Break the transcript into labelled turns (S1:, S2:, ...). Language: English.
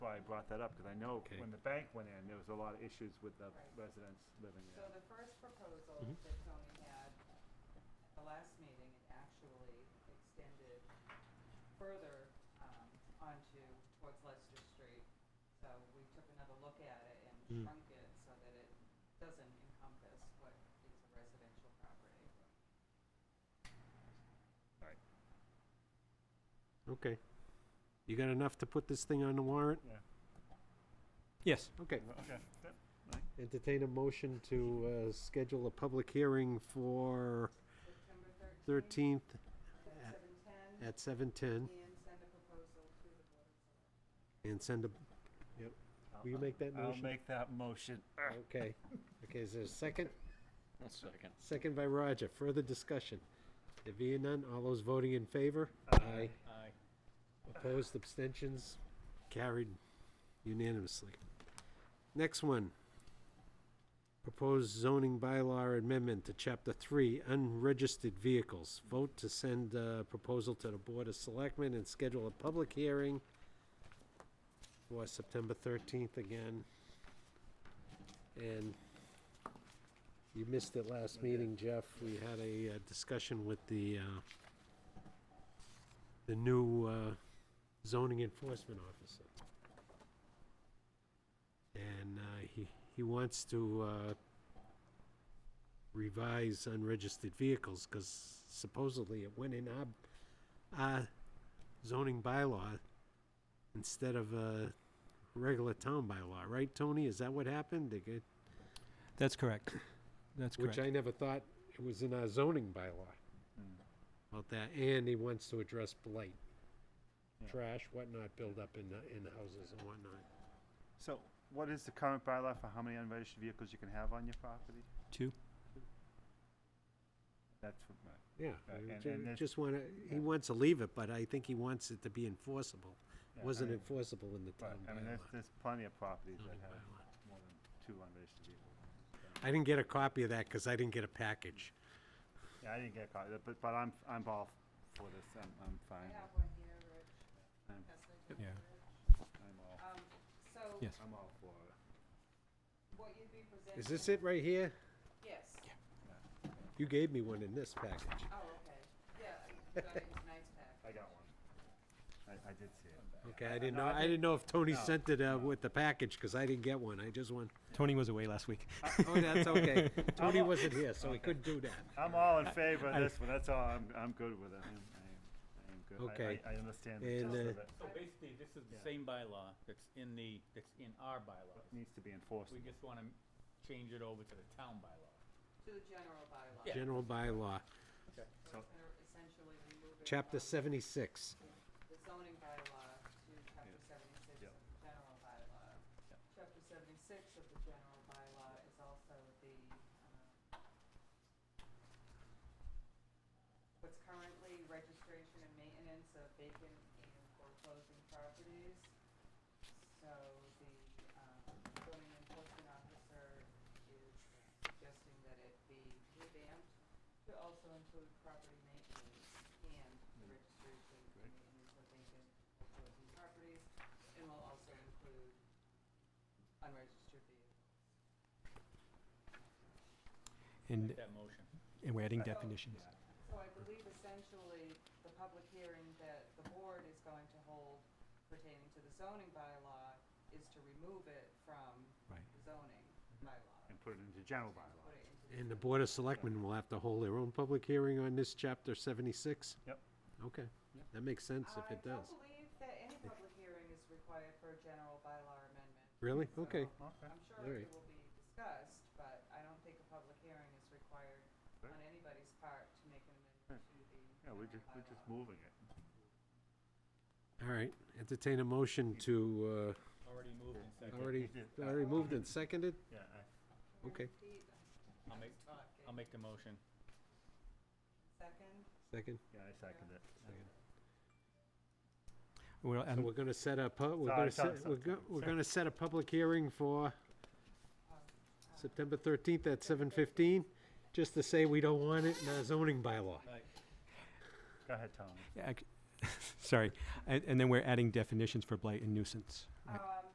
S1: brought that up, because I know
S2: Okay.
S1: when the bank went in, there was a lot of issues with the
S3: Right.
S1: residents living
S3: So
S1: there.
S3: the first proposal
S2: Mhm.
S3: that Tony had at the last meeting, it actually extended further um, onto, towards Leicester Street. So we took another look at it and
S2: Mm.
S3: shrunk it so that it doesn't encompass what is a residential property.
S2: Okay. You got enough to put this thing on the warrant?
S4: Yes.
S2: Okay.
S1: Okay, yep.
S2: Entertain a motion to uh, schedule a public hearing for
S3: September thirteenth,
S2: 13th
S3: at seven ten,
S2: at 7:10
S3: and send a proposal to the Board of Selectmen.
S2: and send a,
S1: I'll-
S2: will you make that
S1: I'll
S2: motion?
S1: make that motion.
S2: Okay. Okay, is there a second?
S4: One second.
S2: Second by Roger. Further discussion? There being none, all those voting in favor? Aye.
S4: Aye.
S2: Opposed, abstentions? Carried unanimously. Next one. Proposed zoning bylaw amendment to Chapter 3, unregistered vehicles. Vote to send uh proposal to the Board of Selectmen and schedule a public hearing for September 13th again. And you missed it last meeting, Jeff. We had a uh, discussion with the, uh, the new uh, zoning enforcement officer. And uh, he, he wants to uh, revise unregistered vehicles, because supposedly it went in our, our zoning bylaw instead of a regular town bylaw, right, Tony? Is that what happened? They get-
S4: That's correct. That's correct.
S2: Which I never thought it was in our zoning bylaw
S1: Mm.
S2: about that, and he wants to address blight.
S1: Yeah.
S2: Trash, whatnot, build up in, in houses and whatnot.
S1: So what is the current bylaw for how many unregistered vehicles you can have on your property?
S4: Two.
S1: That's what my.
S2: Yeah,
S1: Right,
S2: we
S1: Uh, and-
S2: ju-
S1: and this-
S2: just wanna, he
S1: yeah.
S2: wants to leave it, but I think he wants it to be enforceable.
S1: yeah, I
S2: Wasn't
S1: mean,
S2: enforceable in the
S1: right,
S2: town
S1: I mean, there's,
S2: bylaw.
S1: there's plenty of properties that
S2: Zoning
S1: have
S2: bylaw.
S1: more than two unregistered vehicles.
S2: I didn't get a copy of that, cause I didn't get a package.
S1: Yeah, I didn't get caught, but, but I'm, I'm all for this, I'm, I'm
S3: I
S1: fine,
S3: have one here, Rich.
S2: Um,
S1: I'm-
S3: Pass it
S4: Yep.
S3: to
S4: Yeah.
S3: Rich.
S1: I'm all,
S3: Um, So
S4: Yes.
S1: I'm all for it.
S3: what you'd be presenting.
S2: Is this it right here?
S3: Yes.
S2: You gave me one in this package.
S3: Oh, okay. Yeah, you got it in tonight's pack.
S1: I got one. I, I did see it.
S2: Okay, I didn't
S1: no,
S2: know,
S1: I
S2: I didn't know if Tony
S1: no,
S2: sent it, uh,
S1: no.
S2: with the package, cause I didn't get one, I just want,
S4: Tony was away last week.
S2: oh, that's okay. Tony
S1: all-
S2: wasn't here, so he couldn't do that.
S1: I'm all in favor of
S4: I-
S1: this one, that's all, I'm, I'm good with it, I'm, I am, I am good,
S2: Okay.
S1: I- I, I understand the gist
S2: And,
S1: of
S2: uh,
S1: it,
S5: So basically, this is the
S1: Yeah.
S5: same bylaw that's in the, that's in our bylaw.
S1: but it needs to be enforced.
S5: We just wanna m- change it over to the town bylaw.
S3: To the general bylaw.
S5: Yeah.
S2: General bylaw,
S3: So it's gonna essentially remove it
S2: chapter
S3: from
S2: seventy-six.
S3: The zoning bylaw to chapter
S1: Yeah.
S3: seventy-six
S1: Yeah.
S3: of the general bylaw.
S5: Yeah.
S3: Chapter seventy-six of the general bylaw is also the, um, what's currently registration and maintenance of vacant and foreclosing properties. So the, um, zoning enforcement officer is suggesting that it be revamped to also include property maintenance and the
S2: Mm.
S3: registration and
S1: Great.
S3: maintenance of vacant foreclosing properties, and will also include unregistered vehicles.
S5: Make
S4: And,
S5: that motion.
S4: and we're adding
S3: Right.
S4: definitions.
S3: So I believe essentially the public hearing that the board is going to hold pertaining to the zoning bylaw is to remove it from
S4: Right.
S3: the zoning bylaw.
S1: And put it into general
S3: and
S1: bylaw.
S3: put it into the
S2: And the Board of Selectmen will have to hold their own public hearing on this chapter seventy-six?
S1: Yep.
S2: Okay,
S1: Yep.
S2: that makes sense if it
S3: I
S2: does.
S3: don't believe that any public hearing is required for a general bylaw amendment.
S2: Really?
S3: So
S2: Okay.
S1: Okay,
S3: I'm sure
S2: All right.
S3: it will be discussed, but I don't think a public hearing is required
S1: Right.
S3: on anybody's part to make an amendment to the
S1: yeah, we're just, we're
S3: general
S1: just
S3: bylaw.
S1: moving it.
S2: All right, entertain a motion to,
S5: Already moved and
S2: uh,
S5: seconded.
S2: already, already moved and seconded?
S1: Yeah, I,
S3: Can you
S2: Okay.
S3: repeat?
S5: I'll make,
S3: Talk.
S5: I'll make the motion.
S3: Second?
S2: Second?
S1: yeah, I second it.
S4: Well,
S2: So
S4: and
S2: we're gonna set up, we're
S1: Sorry, sorry,
S2: gonna set, we're
S1: sorry,
S2: go, we're
S1: sorry.
S2: gonna set a public hearing for
S3: Um, uh,
S2: September thirteenth at seven fifteen, just to say we don't want it in our zoning bylaw.
S1: Go ahead, Tom.
S2: Ah,
S4: ac- sorry, and, and then we're adding definitions for blight and nuisance. Right.
S3: Um,